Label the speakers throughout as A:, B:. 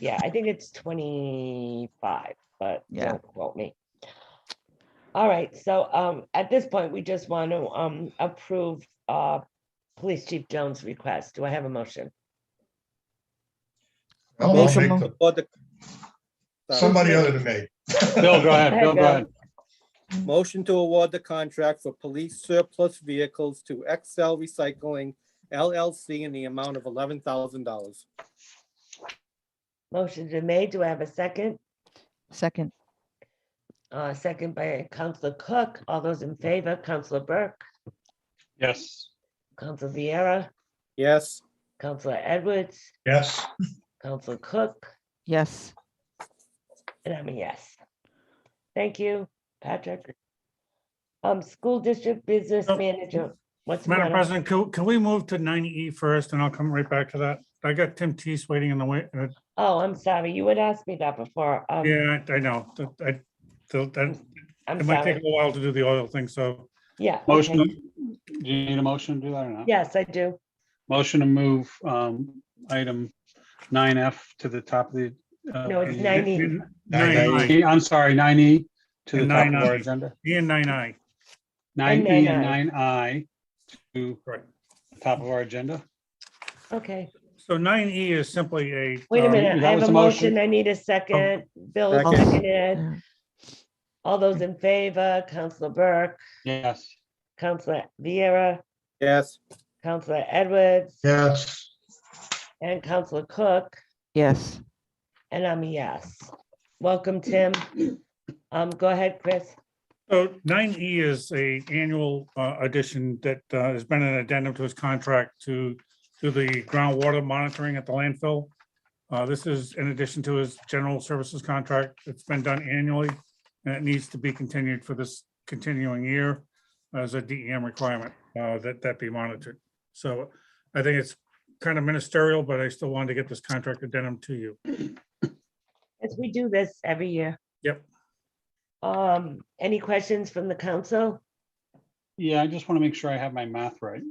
A: Yeah, I think it's twenty-five, but
B: Yeah.
A: don't quote me. All right, so um, at this point, we just want to um, approve uh, Police Chief Jones' request. Do I have a motion?
C: I'll
B: Make
C: make
B: a
C: the,
D: For the. sorry.
C: somebody other than me.
E: Bill, go ahead, Bill, go ahead.
D: Motion to award the contract for police surplus vehicles to XL Recycling LLC in the amount of eleven thousand dollars.
A: Motion's been made. Do I have a second?
B: Second,
A: Uh, second by Counselor Cook. All those in favor, Counselor Burke,
E: Yes,
A: Counselor Vieira,
D: Yes,
A: Counselor Edwards,
C: Yes,
A: Counselor Cook,
B: yes.
A: and I'm a yes. Thank you, Patrick. Um, school district business
F: Oh.
A: manager, what's? the
F: Madam
A: matter?
F: President, can, can we move to nine E first and I'll come right back to that? I got Tim Tees waiting in the way. uh,
A: Oh, I'm sorry. You had asked me that before. Um,
F: Yeah, I I know. that- I, so that,
A: I'm
F: it might
A: sorry.
F: take a while to do the oil thing, so
A: Yeah.
E: motion,
A: okay.
E: do you need a motion to do that or not?
A: Yes, I do.
E: Motion to move um, item nine F to the top of the. uh,
A: No, it's E. 9E.
F: Nine I,
E: I'm sorry, nine E to the
F: And
E: top of
F: 9I.
E: our agenda,
F: and nine I.
E: nine
A: And
E: E and nine I to
F: Right.
E: the top of our agenda.
A: Okay.
F: So nine E is simply a.
A: Wait a
F: um,
A: minute.
E: that
A: I have
E: was
A: a
E: a motion.
A: motion. I need a second. Bill
D: Second.
A: seconded.
B: Yeah.
A: All those in favor, Counselor Burke,
E: Yes,
A: Counselor Vieira,
D: yes,
A: Counselor Edwards,
C: yes,
A: and Counselor Cook.
B: Yes,
A: And I'm a yes. Welcome, Tim. Um, go ahead, Chris.
F: So nine E is a annual uh, addition that uh, has been an addendum to his contract to do the groundwater monitoring at the landfill. Uh, This is in addition to his general services contract. It's been done annually and it needs to be continued for this continuing year as a DEM requirement uh, that that be monitored. So I think it's kind of ministerial, but I still wanted to get this contract addendum to you.
A: As we do this every year.
F: Yep.
A: Um, any questions from the council?
E: yeah, I just want to make sure I have my math right.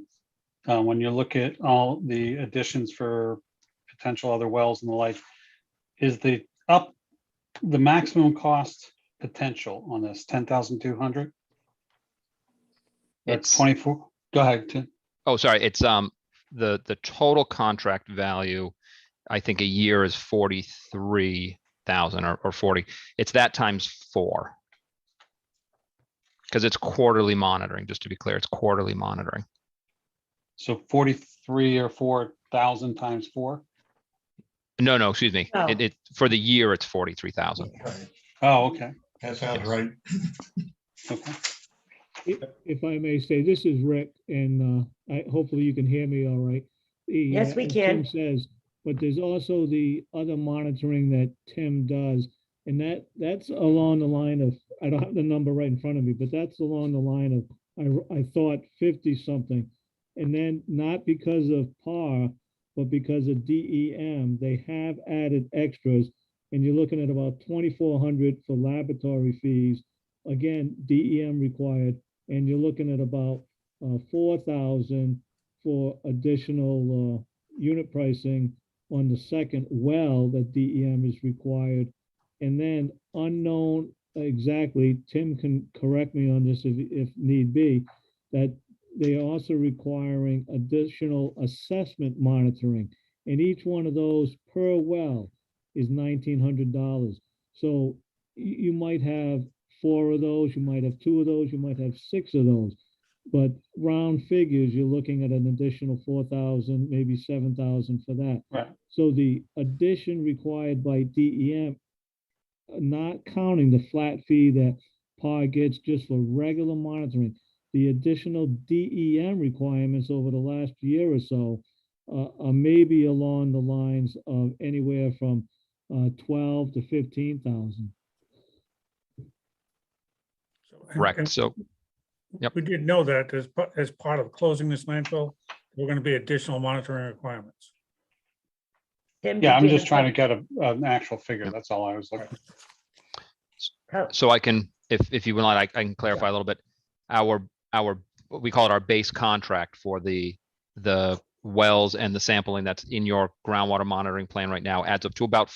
E: Uh, When you look at all the additions for potential other wells and the like, is the up, the maximum cost potential on this ten thousand two hundred? That's
G: It's-
E: twenty-four, go ahead, Tim.
G: Oh, sorry, it's, um, the, the total contract value, I think a year is forty-three thousand or, or forty. It's that times four. Because it's quarterly monitoring, just to be clear, it's quarterly monitoring.
E: So forty-three or four thousand times four?
G: No, no, excuse me. It,
A: No.
G: it, for the year, it's forty-three thousand.
C: Right.
E: Oh, okay,
C: that sounds right.
E: okay.
H: If if I may say, this is Rick, and uh, I, hopefully you can hear me all right. The,
A: Yes,
H: uh,
A: we
H: as
A: can.
H: Tim Says, but there's also the other monitoring that Tim does, and that, that's along the line of, I don't have the number right in front of me, but that's along the line of, I, r- I thought fifty-something. And then not because of par, but because of DEM, they have added extras, and you're looking at about twenty-four hundred for laboratory fees. Again, DEM required, and you're looking at about uh, 4,000 for additional uh, unit pricing on the second well that DEM is required. And then unknown exactly, Tim can correct me on this if, if need be, that they are also requiring additional assessment monitoring. And each one of those per well is $1,900. So you, you might have four of those, you might have two of those, you might have six of those. But round figures, you're looking at an additional four thousand, maybe seven thousand for that.
E: Right.
H: So the addition required by DEM, uh, not counting the flat fee that PAR gets just for regular monitoring, the additional DEM requirements over the last year or so uh, are maybe along the lines of anywhere from uh, twelve to fifteen thousand.
G: Correct, so, Yep.
F: We did know that as, pa- as part of closing this landfill, we're going to be additional monitoring requirements.
A: Tim,
E: Yeah,
A: did
E: I'm
A: you
E: just
A: have
E: trying to
A: some-
E: get a, an actual figure, that's all I was looking. for.
A: How-
G: so I can, if, if you would like, I I can clarify a little bit. Our, our, what we call it our base contract for the, the wells and the sampling that's in your groundwater monitoring plan right now adds up to about